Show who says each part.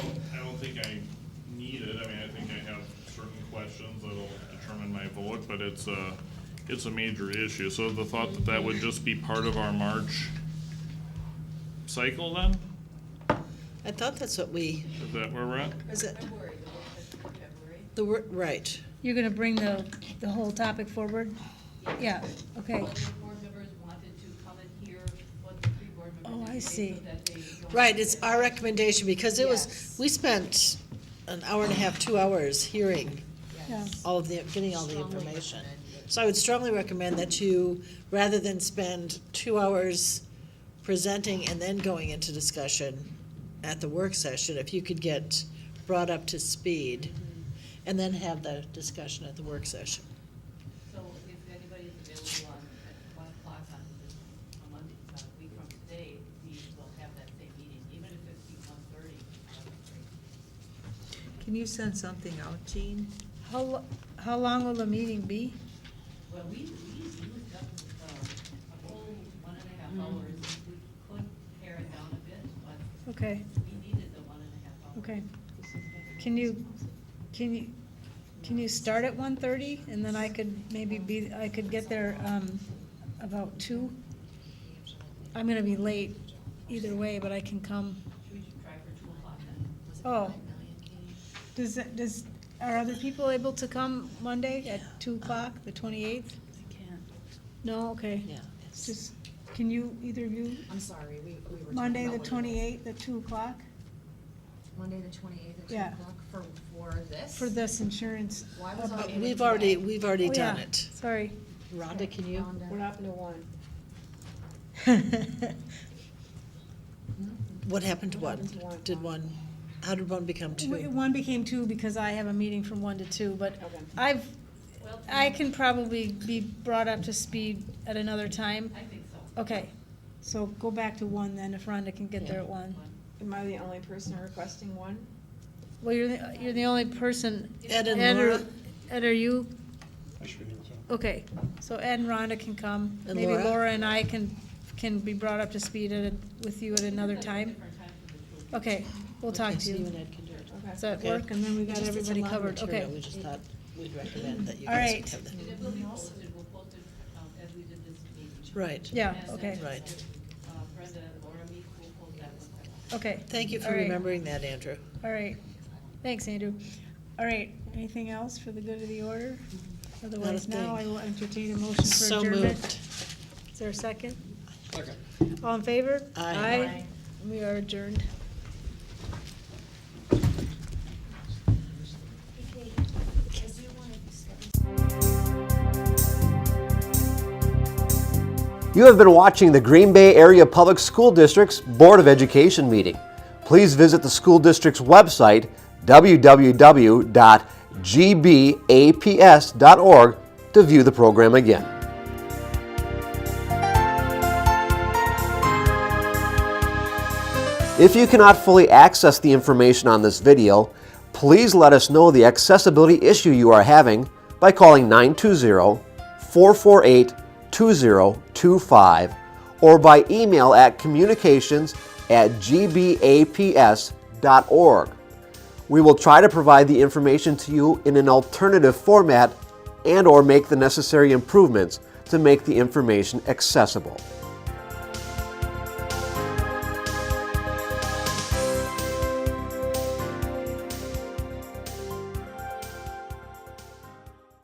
Speaker 1: questions that'll determine my vote, but it's a, it's a major issue. So the thought that that would just be part of our March cycle then?
Speaker 2: I thought that's what we,
Speaker 1: Is that where we're at?
Speaker 2: is it,
Speaker 3: February, the work session in February.
Speaker 2: the, wor- right.
Speaker 4: You're gonna bring the, the whole topic forward? Yeah, okay.
Speaker 3: All the board members wanted to come and hear what the three board members.
Speaker 4: Oh, I
Speaker 3: had to say so
Speaker 4: see.
Speaker 3: that they don't
Speaker 2: Right, it's
Speaker 3: get-
Speaker 2: our recommendation, because it was,
Speaker 3: Yes.
Speaker 2: we spent an hour and a half, two hours hearing
Speaker 4: Yeah.
Speaker 3: Yes.
Speaker 2: all of the, getting all the
Speaker 3: Strongly
Speaker 2: information.
Speaker 3: recommend it.
Speaker 2: So I would strongly recommend that you, rather than spend two hours presenting and then going into discussion at the work session, if you could get brought up to speed and then have the discussion at the work session.
Speaker 3: So if anybody is available on, at one o'clock on, this- on Monday, about a week from today, we will have that same meeting, even if it's one thirty.
Speaker 5: Can you send something out, Jean?
Speaker 4: How, lo- how long will the meeting be?
Speaker 3: Well, we, we used up, um, a whole one and a half hours, we could pare it down a bit, but
Speaker 4: Okay,
Speaker 3: we needed the one and a half hours.
Speaker 4: okay. Can you, can you, can you start at one thirty and then I could maybe be, I could get there, um, about two? I'm gonna be late either way, but I can come.
Speaker 3: Should we try for two o'clock then?
Speaker 4: Oh. Does, that- does, are other people able to come Monday at two o'clock, the twenty-eighth?
Speaker 6: I can't.
Speaker 4: No, okay.
Speaker 2: Yeah.
Speaker 4: It's just, can you, either of you,
Speaker 6: I'm sorry, we, we were. talking
Speaker 4: Monday the
Speaker 6: about what it was.
Speaker 4: twenty-eighth at two o'clock?
Speaker 6: Monday, the twenty-eighth at two
Speaker 4: Yeah.
Speaker 6: o'clock for, for this?
Speaker 4: For this insurance.
Speaker 6: Why was I
Speaker 2: But
Speaker 6: able to
Speaker 2: we've
Speaker 6: do
Speaker 2: already,
Speaker 6: that?
Speaker 2: we've already
Speaker 4: Oh, yeah,
Speaker 2: done it.
Speaker 4: Sorry.
Speaker 2: Rhonda, can you?
Speaker 6: Rhonda.
Speaker 7: happened to one?
Speaker 2: What happened to
Speaker 7: What happened to
Speaker 2: one?
Speaker 7: one?
Speaker 2: Did one, how did one become
Speaker 4: W-
Speaker 2: two?
Speaker 4: One became two because I have a meeting from one to two, but
Speaker 7: Okay.
Speaker 4: I've,
Speaker 3: Well,
Speaker 4: I can probably be brought up to speed at another time.
Speaker 3: I think so.
Speaker 4: Okay, so go back to one then if Rhonda can get there at one.
Speaker 7: Am I the only person requesting one?
Speaker 4: Well, you're, the you're the only person.
Speaker 2: Ed and
Speaker 4: Ed, are-
Speaker 2: Laura?
Speaker 4: Ed, are you
Speaker 8: I should be here, so.
Speaker 4: Okay, so Ed and Rhonda can come.
Speaker 2: And
Speaker 4: Maybe
Speaker 2: Laura?
Speaker 4: Laura and I can, can be brought up to speed at, a- with you at another time.
Speaker 3: Different time for the two of you.
Speaker 4: Okay, we'll talk
Speaker 2: Okay,
Speaker 4: to
Speaker 2: so and
Speaker 4: you.
Speaker 2: Ed can do it.
Speaker 7: Okay.
Speaker 4: Does that
Speaker 2: Okay.
Speaker 4: work? And then we got
Speaker 2: Just it's a
Speaker 4: everybody
Speaker 2: lot of
Speaker 4: covered,
Speaker 2: material.
Speaker 4: okay.
Speaker 2: We just thought we'd recommend that you
Speaker 4: All
Speaker 2: guys
Speaker 4: right.
Speaker 2: have that.
Speaker 3: And it will be posted, we'll post it um, as we did this meeting.
Speaker 2: Right.
Speaker 4: Yeah,
Speaker 3: And then,
Speaker 4: okay,
Speaker 2: Right.
Speaker 3: uh, Brenda, Laura, me, we'll post that one.
Speaker 4: okay.
Speaker 2: Thank you for
Speaker 4: All right,
Speaker 2: remembering that, Andrew.
Speaker 4: All right, thanks, Andrew. All right, anything else for the good of the order? Otherwise, now
Speaker 2: thing.
Speaker 4: I will entertain a motion for
Speaker 2: So
Speaker 4: adjournment.
Speaker 2: moved.
Speaker 4: Is there a second? Second. All in favor?
Speaker 2: Aye.
Speaker 4: Aye. We are adjourned.
Speaker 9: You have been watching the Green Bay Area Public School District's Board of Education meeting. Please visit the school district's website, www.gbaps.org, to view the program again. If you cannot fully access the information on this video, please let us know the accessibility issue you are having by calling 920-448-2025 or by email at communications at gbaps.org. We will try to provide the information to you in an alternative format and or make the necessary improvements to make the information accessible.